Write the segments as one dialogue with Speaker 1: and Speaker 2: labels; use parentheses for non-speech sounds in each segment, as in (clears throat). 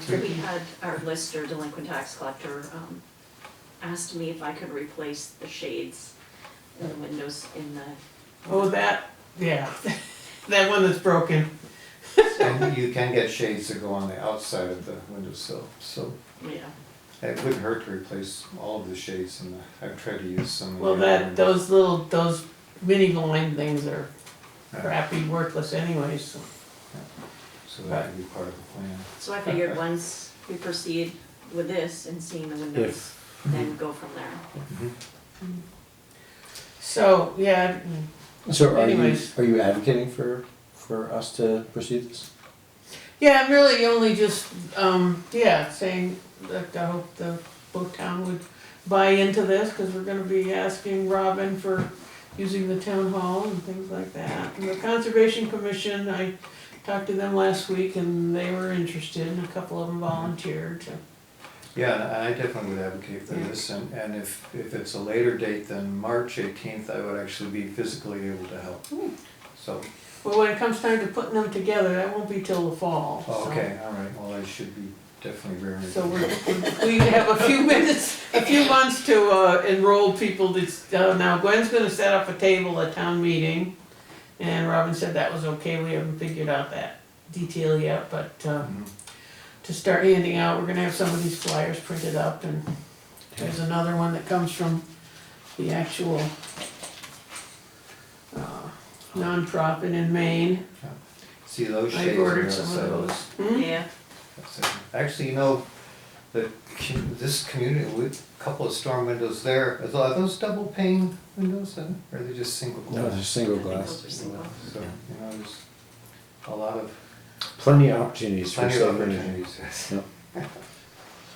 Speaker 1: So we had our lister, delinquent tax collector, um, asked me if I could replace the shades in the windows in the,
Speaker 2: Oh, that, yeah, that one that's broken.
Speaker 3: And you can get shades that go on the outside of the windowsill, so
Speaker 1: yeah.
Speaker 3: it wouldn't hurt to replace all of the shades in the, I've tried to use some. in
Speaker 2: Well,
Speaker 3: the other
Speaker 2: that,
Speaker 3: windows.
Speaker 2: those little, those mini blind things are crappy, worthless anyways, so.
Speaker 3: So that could be part of the plan.
Speaker 1: So I figured once we proceed with this and seeing the windows, then go from there.
Speaker 2: So, yeah, mm,
Speaker 4: So are you,
Speaker 2: Anyways.
Speaker 4: are you advocating for, for us to pursue this?
Speaker 2: yeah, I'm really only just, um, yeah, saying that I hope the boat town would buy into this, cause we're gonna be asking Robin for using the town hall and things like that. And the Conservation Commission, I talked to them last week and they were interested, and a couple of them volunteered, so.
Speaker 3: Yeah, and I definitely would advocate for
Speaker 2: Yeah.
Speaker 3: this, and, and if, if it's a later date than March eighteenth, I would actually be physically able to help.
Speaker 2: Hmm.
Speaker 3: So,
Speaker 2: Well, when it comes time to putting them together, that won't be till the fall,
Speaker 3: oh,
Speaker 2: so-
Speaker 3: okay, all right, well, I should be definitely very.
Speaker 2: So we're, we have a few (laughs) minutes, a few months to uh, enroll people that's, uh, now Gwen's gonna set up a table at town meeting. And Robin said that was okay, we haven't figured out that detail yet, but, uh,
Speaker 3: Mhm.
Speaker 2: to start handing out, we're gonna have some of these flyers printed up and there's another one that comes from the actual uh, nonprofit in Maine.
Speaker 3: See those shades.
Speaker 2: I
Speaker 3: on the
Speaker 2: ordered some
Speaker 3: outside.
Speaker 2: of those. Hmm?
Speaker 1: Yeah,
Speaker 3: That's it. Actually, you know, the, com- this community, we, couple of storm windows there, are tho- are those double pane windows then, or are they just single
Speaker 4: No, just
Speaker 3: glass?
Speaker 4: single
Speaker 1: I think
Speaker 4: glass.
Speaker 1: those are single.
Speaker 3: So, you know, there's a lot of,
Speaker 4: Plenty of opportunities for
Speaker 3: plenty of
Speaker 4: saving.
Speaker 3: opportunities.
Speaker 4: (laughs)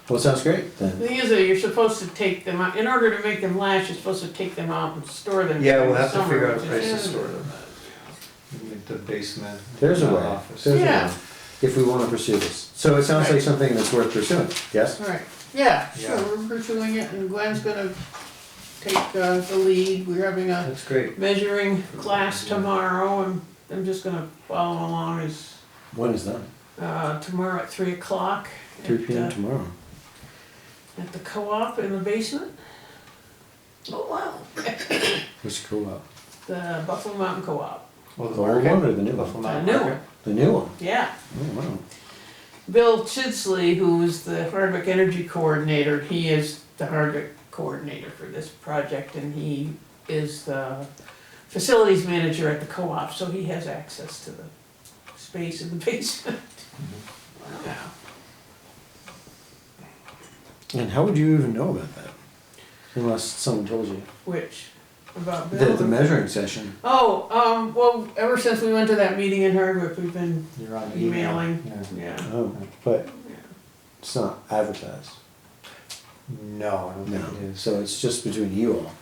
Speaker 4: Well, it sounds great then.
Speaker 2: The thing is that you're supposed to take them out, in order to make them last, you're supposed to take them out and store them.
Speaker 3: Yeah,
Speaker 2: during
Speaker 3: we'll
Speaker 2: the
Speaker 3: have to
Speaker 2: summer,
Speaker 3: figure out a
Speaker 2: which
Speaker 3: place to
Speaker 2: is-
Speaker 3: store them. Like The basement.
Speaker 4: There's a
Speaker 3: the
Speaker 4: way,
Speaker 3: office.
Speaker 4: there's a
Speaker 2: Yeah.
Speaker 4: way, if we wanna pursue this. So it sounds like something that's worth pursuing, yes?
Speaker 2: Right, yeah,
Speaker 3: Yeah.
Speaker 2: sure, we're pursuing it and Gwen's gonna take uh, the lead, we're having a
Speaker 3: That's great.
Speaker 2: measuring class tomorrow and I'm just gonna follow along as,
Speaker 4: When is that?
Speaker 2: uh, tomorrow at three o'clock.
Speaker 4: Three
Speaker 2: at,
Speaker 4: P M
Speaker 2: uh,
Speaker 4: tomorrow.
Speaker 2: At the co-op in the basement. Oh, wow.
Speaker 4: Which co-op?
Speaker 2: The Buffalo Mountain Co-op,
Speaker 3: Well,
Speaker 4: The old one or the new
Speaker 3: Buffalo
Speaker 4: one?
Speaker 3: Mountain
Speaker 2: The new
Speaker 3: Market.
Speaker 4: The new one.
Speaker 2: yeah.
Speaker 4: Oh, wow.
Speaker 2: Bill Chidsley, who is the Hardwick Energy Coordinator, he is the Hardwick Coordinator for this project and he is the facilities manager at the co-op, so he has access to the space in the (laughs) basement. Yeah.
Speaker 4: And how would you even know about that? Unless someone told you.
Speaker 2: Which, about
Speaker 4: The, the
Speaker 2: Bill?
Speaker 4: measuring session.
Speaker 2: Oh, um, well, ever since we went to that meeting in Hardwick, we've been,
Speaker 3: You're on email.
Speaker 2: Emailing.
Speaker 3: Yeah.
Speaker 2: yeah,
Speaker 4: Oh, but
Speaker 2: yeah.
Speaker 4: it's not advertised.
Speaker 3: No, I don't
Speaker 4: No,
Speaker 3: think it is.
Speaker 4: so it's just between you all.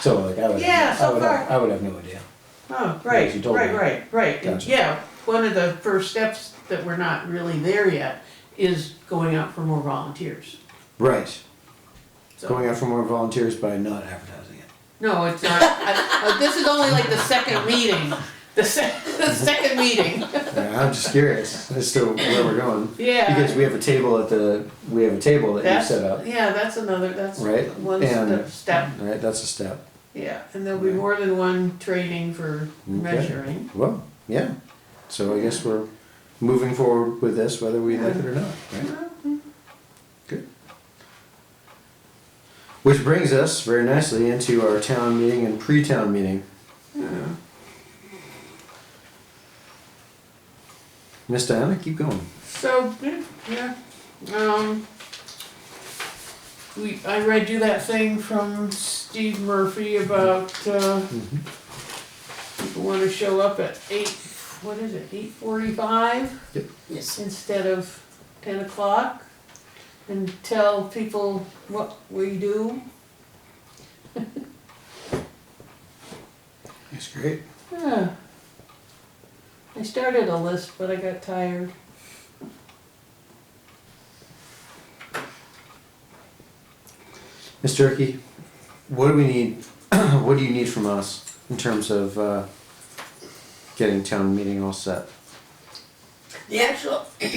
Speaker 4: So like I would,
Speaker 2: Yeah,
Speaker 4: have,
Speaker 2: so
Speaker 4: I would, have,
Speaker 2: far.
Speaker 4: I would have no idea.
Speaker 2: Oh, right,
Speaker 4: Yes, you told
Speaker 2: right,
Speaker 4: me.
Speaker 2: right, right. And
Speaker 4: Gotcha.
Speaker 2: Yeah, one of the first steps that we're not really there yet is going out for more volunteers.
Speaker 4: Right,
Speaker 2: So,
Speaker 4: going out for more volunteers by not advertising it.
Speaker 2: no, it's not, I, uh, this is only like the second meeting, the sec, (laughs) the second meeting,
Speaker 4: Yeah, I'm just curious as to where we're going
Speaker 2: yeah.
Speaker 4: because we have a table at the we have a table that
Speaker 2: That's-
Speaker 4: you set up.
Speaker 2: Yeah, that's another, that's
Speaker 4: Right,
Speaker 2: one
Speaker 4: and-
Speaker 2: step, step,
Speaker 4: Right, that's a step.
Speaker 2: yeah, and there'll be more than one training for measuring.
Speaker 4: Well, yeah. So I guess we're moving forward with this whether we like it or not. Right? Good. Which brings us very nicely into our town meeting and pre-town meeting.
Speaker 2: Yeah.
Speaker 4: Miss Diana, keep going.
Speaker 2: So, yeah, yeah, um, we, I read you that thing from Steve Murphy about, uh, people wanna show up at eight, what is it, eight forty-five?
Speaker 4: Yep.
Speaker 2: Yes. Instead of ten o'clock, and tell people what we do.
Speaker 4: That's great.
Speaker 2: Yeah. I started a list, but I got tired.
Speaker 4: Mr. Turkey, what do we need? (clears throat) what do you need from us in terms of uh, getting town meeting all set?
Speaker 5: The actual